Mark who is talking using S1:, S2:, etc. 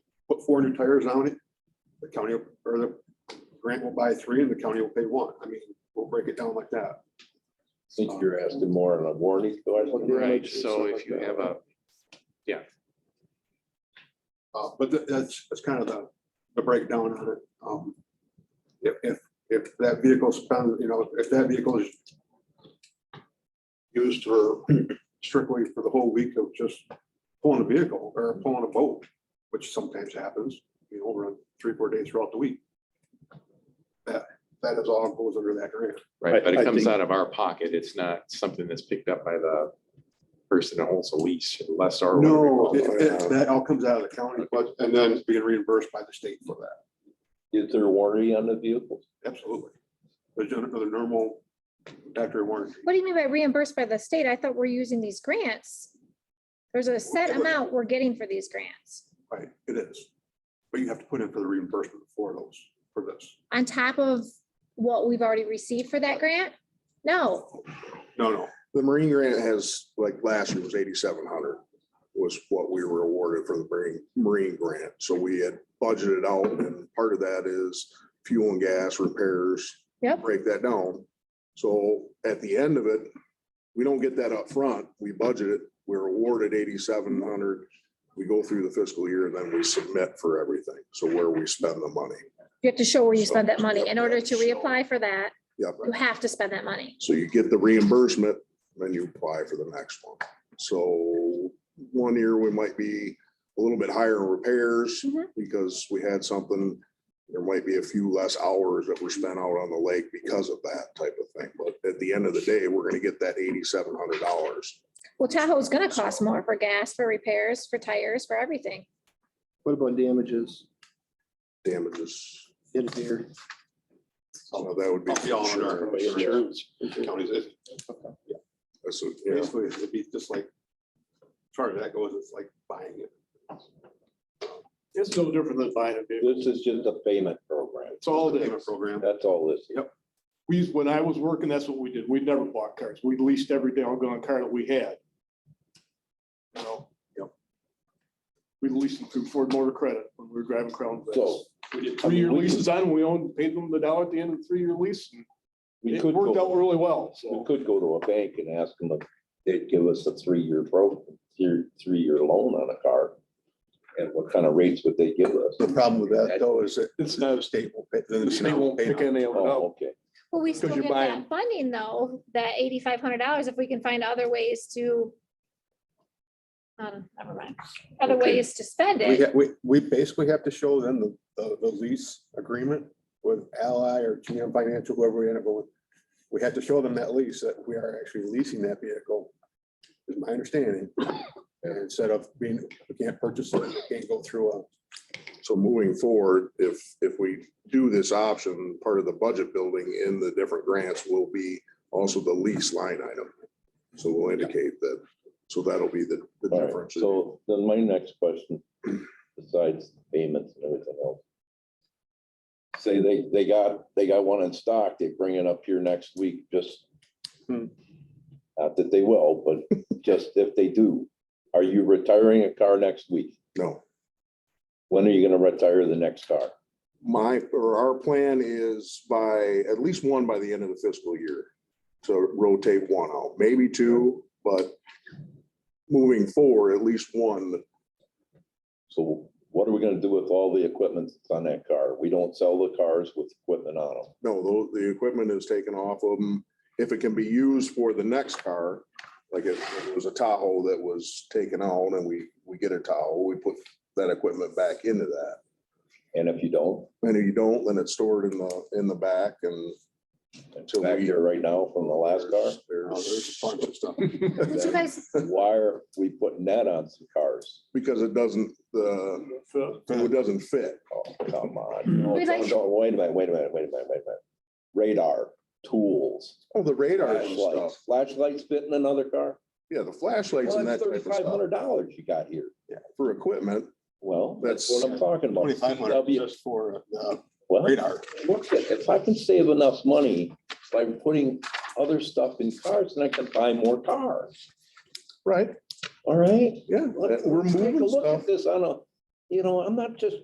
S1: four new tires on it, the county will- or the grant will buy three and the county will pay one. I mean, we'll break it down like that.
S2: think you're asking more on a warranty question.
S3: Right, so if you have a,
S1: Uh, but tha- that's, that's kind of the, the breakdown on it. Um, if, if, if that vehicle spend, you know, if that vehicle is used for strictly for the whole week of just pulling a vehicle or pulling a boat, which sometimes happens, you know, over three, four days throughout the week. That, that is all goes under that grant.
S3: right, but
S4: I-
S3: it
S4: I
S3: comes
S4: think-
S3: out of our pocket. It's not something that's picked up by the person that holds the lease, less our.
S1: No,
S4: we
S1: it-
S4: call it.
S1: it- that all comes out of the county, but, and then being reimbursed by the state for that,
S2: Is there warranty on the vehicle?
S1: absolutely. There's another normal factory warranty.
S5: What do you mean by reimbursed by the state? I thought we're using these grants. There's a set amount we're getting for these grants
S1: Right, it is. But you have to put in for the reimbursement for those, for this.
S5: on top of what we've already received for that grant? No,
S1: No, no,
S4: The Marine grant has, like last year was eighty-seven hundred was what we were awarded for the Marine, Marine grant. So we had budgeted out and part of that is fuel and gas repairs.
S5: Yep.
S4: Break that down. So at the end of it, we don't get that up front. We budget it. We're awarded eighty-seven hundred. We go through the fiscal year and then we submit for everything. So where we spend the money.
S5: you have to show where you spent that money. In order to reapply for that,
S4: Yep.
S5: you have to spend that money.
S4: So you get the reimbursement, then you apply for the next one. So one year we might be a little bit higher in repairs
S5: Mhm.
S4: because we had something. There might be a few less hours that were spent out on the lake because of that type of thing. But at the end of the day, we're gonna get that eighty-seven hundred dollars.
S5: Well, Tahoe's gonna cost more for gas, for repairs, for tires, for everything.
S6: What about damages
S4: Damages,
S6: in here?
S4: so that would be.
S1: Be all under our
S4: insurance.
S1: counties, it-
S4: That's what- yeah.
S1: basically, it'd be just like, as far as that goes, it's like buying it.
S7: It's no different than buying a vehicle.
S2: This is just a payment program.
S7: It's all
S1: The
S7: the,
S1: payment program,
S2: That's all this. is.
S7: we, when I was working, that's what we did. We never bought cars. We leased every doggone car that we had. You know?
S1: Yep.
S7: We leased them through Ford Motor Credit when we were driving Crown Vics.
S2: So-
S7: We did
S2: I mean,
S7: three-year
S2: we-
S7: leases on them. We owned, paid them the dollar at the end of the three-year lease. and
S2: We
S7: It
S2: could
S7: worked out
S2: go,
S7: really well,
S2: we
S7: so.
S2: could go to a bank and ask them if they'd give us a three-year pro, three, three-year loan on a car. And what kind of rates would they give us?
S1: The problem with that though is that
S7: It's not,
S1: the state will pay. then
S7: the state won't
S1: pay
S7: pick
S1: it.
S7: any of it up.
S2: Oh, okay.
S5: Well, we
S7: 'Cause
S5: still
S7: you're
S5: get
S7: buying-
S5: that funding though, that eighty-five hundred dollars, if we can find other ways to. Um, never mind, other
S2: Okay.
S5: ways to spend
S8: We,
S5: it.
S8: ha- we, we basically have to show them the, the the lease agreement with Ally or GM Financial, whoever we end up with. We have to show them that lease, that we are actually leasing that vehicle, is my understanding. And instead of being, we can't purchase it, we can't go through a,
S4: So moving forward, if, if we do this option, part of the budget building in the different grants will be also the lease line item. So we'll indicate that, so that'll be the, the
S2: All right,
S4: difference.
S2: So then my next question, besides payments and everything else. Say they, they got, they got one in stock, they bring it up here next week, just.
S8: Hmm.
S2: Not that they will, but just if they do, are you retiring a car next week?
S4: No,
S2: When are you gonna retire the next car?
S4: my, or our plan is by, at least one by the end of the fiscal year. To rotate one out, maybe two, but moving forward, at least one
S2: So what are we gonna do with all the equipment that's on that car? We don't sell the cars with equipment on them.
S4: No, tho- the equipment is taken off of them. If it can be used for the next car, like if it was a Tahoe that was taken out and we, we get a Tahoe, we put that equipment back into that.
S2: And if you don't,
S4: And if you don't, then it's stored in the, in the back and until
S2: back
S4: we.
S2: here right now from the last car.
S1: Uh, There's
S4: there's-
S1: a bunch of stuff.
S5: Did you guys,
S2: why are we putting that on some cars?
S4: Because it doesn't, the,
S7: So,
S4: it doesn't fit.
S2: Oh, come on. No,
S5: We like-
S2: no, Wait a minute, wait a minute, wait a minute, wait a minute. Radar, tools,
S4: Oh, the radars and stuff.
S2: flashlights, flashlights fit in another car?
S4: Yeah, the flashlights
S2: Well,
S4: and that
S2: that's
S4: type of
S2: thirty-five
S4: stuff
S2: hundred dollars you got here.
S4: for equipment.
S2: Well, that's
S4: That's
S2: what I'm talking about.
S8: twenty-five hundred
S2: CW
S8: just for the
S2: Well,
S8: radar.
S2: look at- if I can save enough money by putting other stuff in cars, then I can buy more cars,
S4: Right,
S2: all right?
S4: yeah.
S2: Let's
S4: We're
S2: take a
S4: moving
S2: look
S4: stuff.
S2: at This on a, you know, I'm not just